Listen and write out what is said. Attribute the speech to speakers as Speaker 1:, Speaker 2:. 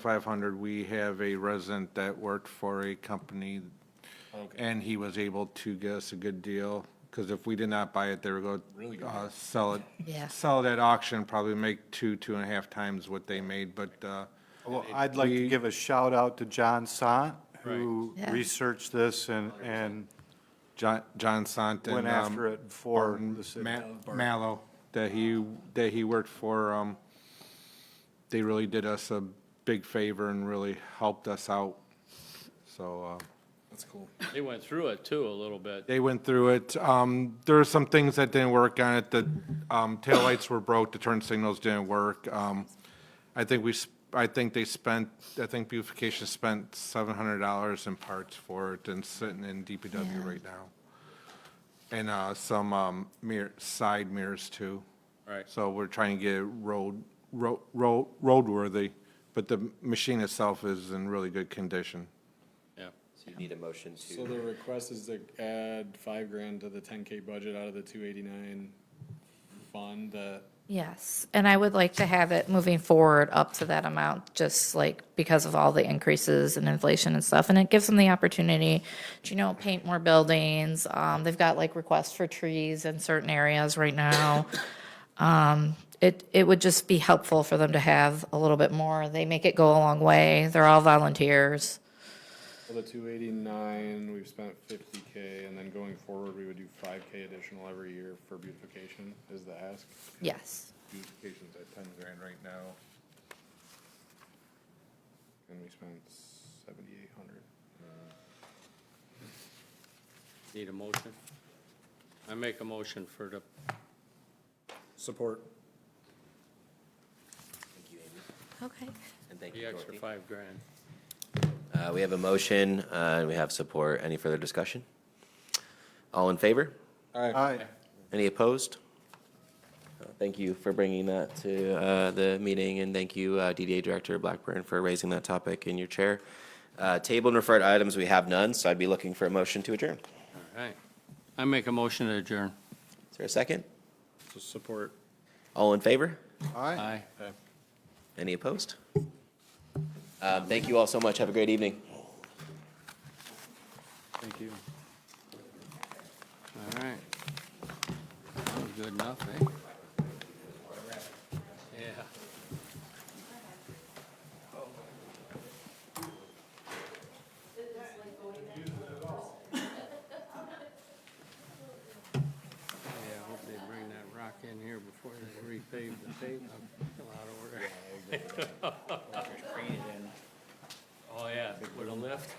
Speaker 1: 2,500, we have a resident that worked for a company, and he was able to get us a good deal, because if we did not buy it, they would go.
Speaker 2: Really good
Speaker 1: uh, Sell it.
Speaker 3: Yeah.
Speaker 1: Sell it at auction, probably make two, two and a half times what they made, but, uh,
Speaker 4: Well, I'd like to give a shout out to John Sant, who
Speaker 3: Yeah.
Speaker 4: researched this and, and
Speaker 1: John, John Sant and.
Speaker 4: went
Speaker 1: um,
Speaker 4: after it for
Speaker 1: Barton,
Speaker 4: the city.
Speaker 1: Ma- Mallow, that he, that he worked for, um, they really did us a big favor and really helped us out. So, uh,
Speaker 2: That's cool.
Speaker 5: They went through it too a little bit.
Speaker 1: they went through it. Um, there were some things that didn't work on it. The, um, taillights were broke, the turn signals didn't work. Um, I think we, sp- I think they spent, I think beautification spent seven hundred dollars in parts for it and sitting in DPW right now. And, uh, some, um, mirror, side mirrors too.
Speaker 5: Right.
Speaker 1: So we're trying to get it road, road, road, roadworthy, but the machine itself is in really good condition.
Speaker 5: Yeah.
Speaker 6: So you need a motion
Speaker 2: So
Speaker 6: to,
Speaker 2: the request is to add five grand to the ten K budget out of the two eighty-nine fund that,
Speaker 3: Yes, and I would like to have it moving forward up to that amount, just like because of all the increases and inflation and stuff. And it gives them the opportunity to, you know, paint more buildings. Um, they've got like requests for trees in certain areas right now. Um, it, it would just be helpful for them to have a little bit more. They make it go a long way. They're all volunteers.
Speaker 2: for the two eighty-nine, we've spent fifty K, and then going forward, we would do five K additional every year for beautification, is the ask.
Speaker 3: Yes.
Speaker 1: Beautification's at ten grand right now.
Speaker 2: And we spent seventy-eight hundred.
Speaker 5: Need a motion? I make a motion for the,
Speaker 2: Support.
Speaker 6: thank you, Amy,
Speaker 3: Okay.
Speaker 6: and thank
Speaker 5: the
Speaker 6: you,
Speaker 5: extra
Speaker 6: Dorothy.
Speaker 5: five grand.
Speaker 6: Uh, we have a motion, uh, and we have support. Any further discussion? All in favor?
Speaker 4: Aye.
Speaker 6: Any opposed? Uh, Thank you for bringing that to, uh, the meeting, and thank you, uh, DDA Director Blackburn for raising that topic in your chair. Uh, table and referred items, we have none, so I'd be looking for a motion to adjourn.
Speaker 5: All right. I make a motion to adjourn.
Speaker 6: Is there a second?
Speaker 2: Support.
Speaker 6: All in favor?
Speaker 4: Aye.
Speaker 5: Aye.
Speaker 6: Any opposed? Um, thank you all so much. Have a great evening.
Speaker 5: Thank you. All right. That was good enough, eh? Yeah. Yeah, I hope they bring that rock in here before they repave the pavement. Come out over there. Oh, yeah, with a lift?